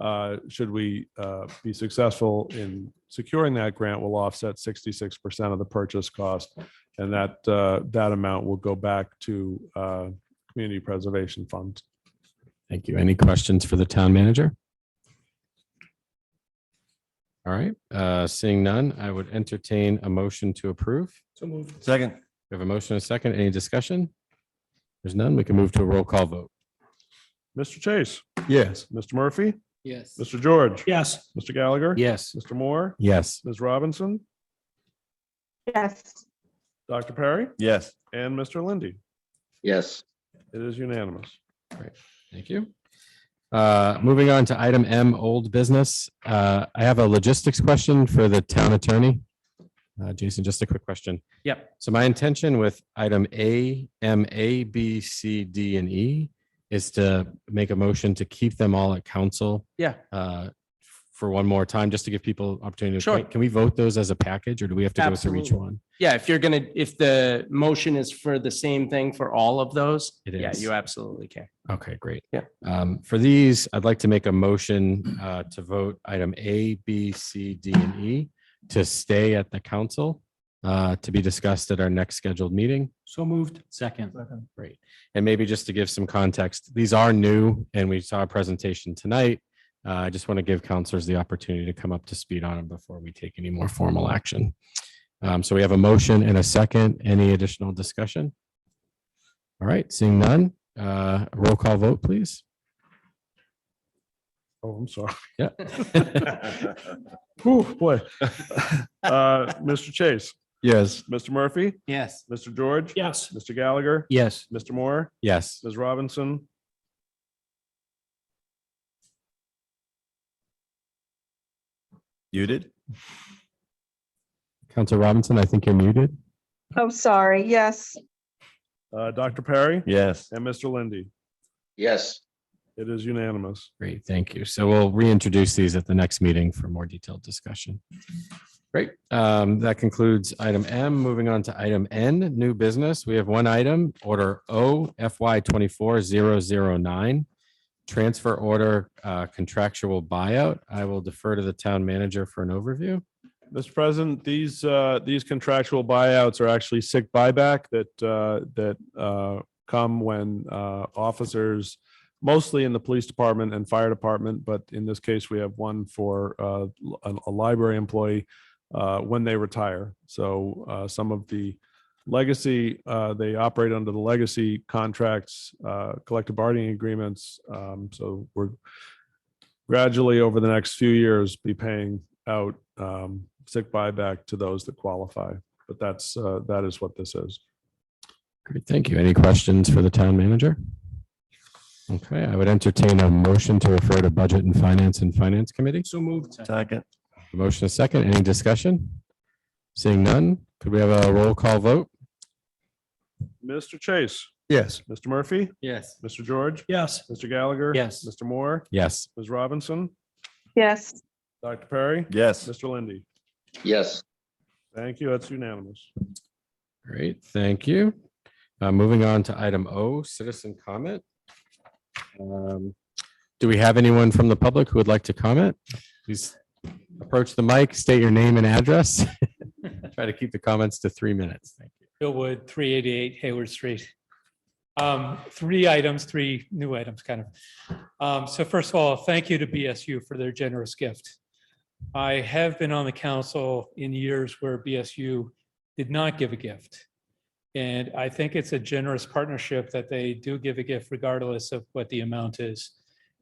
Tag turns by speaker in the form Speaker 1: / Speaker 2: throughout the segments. Speaker 1: uh, should we uh, be successful in securing that grant, will offset sixty-six percent of the purchase cost. And that, uh, that amount will go back to uh, Community Preservation Fund.
Speaker 2: Thank you. Any questions for the town manager? All right, uh, seeing none, I would entertain a motion to approve.
Speaker 3: Second.
Speaker 2: We have a motion and a second. Any discussion? There's none. We can move to a roll call vote.
Speaker 1: Mr. Chase,
Speaker 2: Yes.
Speaker 1: Mr. Murphy,
Speaker 4: Yes.
Speaker 1: Mr. George,
Speaker 4: Yes.
Speaker 1: Mr. Gallagher.
Speaker 2: Yes.
Speaker 1: Mr. Moore,
Speaker 2: Yes.
Speaker 1: Ms. Robinson,
Speaker 5: yes,
Speaker 1: Dr. Perry,
Speaker 3: Yes.
Speaker 1: and Mr. Lindy.
Speaker 4: Yes.
Speaker 1: It is unanimous.
Speaker 2: Thank you. Uh, Moving on to item M, old business. Uh, I have a logistics question for the town attorney. Uh, Jason, just a quick question.
Speaker 4: Yep.
Speaker 2: So my intention with item A, M, A, B, C, D, and E is to make a motion to keep them all at council
Speaker 4: Yeah.
Speaker 2: uh, for one more time, just to give people opportunity. to
Speaker 4: Sure.
Speaker 2: Can we vote those as a package or do we have to go through each
Speaker 4: Absolutely.
Speaker 2: one?
Speaker 4: Yeah, if you're gonna, if the motion is for the same thing for all of those,
Speaker 2: It
Speaker 4: yeah,
Speaker 2: is.
Speaker 4: you absolutely can.
Speaker 2: Okay, great.
Speaker 4: Yeah.
Speaker 2: Um, for these, I'd like to make a motion uh to vote item A, B, C, D, and E to stay at the council uh to be discussed at our next scheduled meeting.
Speaker 4: So moved. Second.
Speaker 2: Great. And maybe just to give some context, these are new and we saw a presentation tonight. Uh, I just want to give counselors the opportunity to come up to speed on them before we take any more formal action. Um, so we have a motion and a second. Any additional discussion? All right, seeing none, uh, roll call vote, please.
Speaker 1: Oh, I'm sorry.
Speaker 2: Yeah.
Speaker 1: Whew, boy. Uh, Mr. Chase,
Speaker 3: Yes.
Speaker 1: Mr. Murphy,
Speaker 4: Yes.
Speaker 1: Mr. George,
Speaker 4: Yes.
Speaker 1: Mr. Gallagher,
Speaker 4: Yes.
Speaker 1: Mr. Moore,
Speaker 2: Yes.
Speaker 1: Ms. Robinson.
Speaker 3: You did?
Speaker 2: Counselor Robinson, I think you're muted.
Speaker 5: oh, sorry, yes,
Speaker 1: Uh, Dr. Perry
Speaker 3: Yes.
Speaker 1: and Mr. Lindy.
Speaker 4: Yes.
Speaker 1: It is unanimous.
Speaker 2: Great, thank you. So we'll reintroduce these at the next meeting for more detailed discussion. Great, um, that concludes item M. Moving on to item N, new business. We have one item, order O FY twenty-four zero zero nine. Transfer order uh, contractual buyout. I will defer to the town manager for an overview.
Speaker 1: Mr. President, these, uh, these contractual buyouts are actually sick buyback that, uh, that, uh, come when, uh, officers, mostly in the police department and fire department, but in this case, we have one for, uh, a, a library employee, uh, when they retire. So, uh, some of the legacy, uh, they operate under the legacy contracts, uh, collective bargaining agreements. Um, so we're gradually over the next few years be paying out um, sick buyback to those that qualify. But that's, uh, that is what this is.
Speaker 2: Great, thank you. Any questions for the town manager? Okay, I would entertain a motion to refer to Budget and Finance and Finance Committee.
Speaker 4: So moved.
Speaker 3: Second.
Speaker 2: A Motion a second. Any discussion? Seeing none, could we have a roll call vote?
Speaker 1: Mr. Chase,
Speaker 3: Yes.
Speaker 1: Mr. Murphy,
Speaker 4: Yes.
Speaker 1: Mr. George,
Speaker 4: Yes.
Speaker 1: Mr. Gallagher.
Speaker 4: Yes.
Speaker 1: Mr. Moore,
Speaker 2: Yes.
Speaker 1: Ms. Robinson,
Speaker 5: yes,
Speaker 1: Dr. Perry,
Speaker 3: Yes.
Speaker 1: Mr. Lindy.
Speaker 4: Yes.
Speaker 1: Thank you. That's unanimous.
Speaker 2: Great, thank you. Uh, moving on to item O, citizen comment. Um, Do we have anyone from the public who would like to comment? Please approach the mic, state your name and address. Try to keep the comments to three minutes. Thank you.
Speaker 6: Bill Wood, three eighty-eight Hayward Street. Um, three items, three new items, kind of. Um, so first of all, thank you to BSU for their generous gift. I have been on the council in years where BSU did not give a gift. And I think it's a generous partnership that they do give a gift regardless of what the amount is.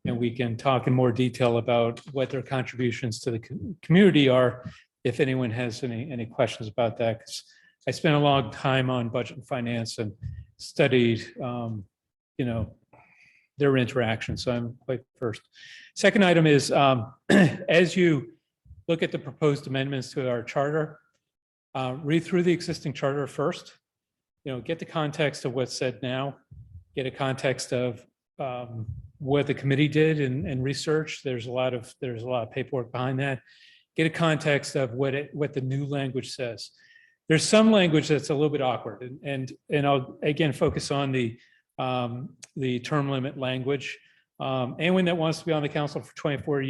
Speaker 6: And we can talk in more detail about what their contributions to the co- community are, if anyone has any, any questions about that, 'cause I spent a long time on budget and finance and studied, um, you know, their interaction, so I'm quite versed. Second item is, um, as you look at the proposed amendments to our charter, uh, read through the existing charter first, you know, get the context of what's said now, get a context of, um, what the committee did and, and research. There's a lot of, there's a lot of paperwork behind that. Get a context of what it, what the new language says there's some language that's a little bit awkward and and and I'll again focus on the um the term limit language. Um anyone that wants to be on the council for twenty-four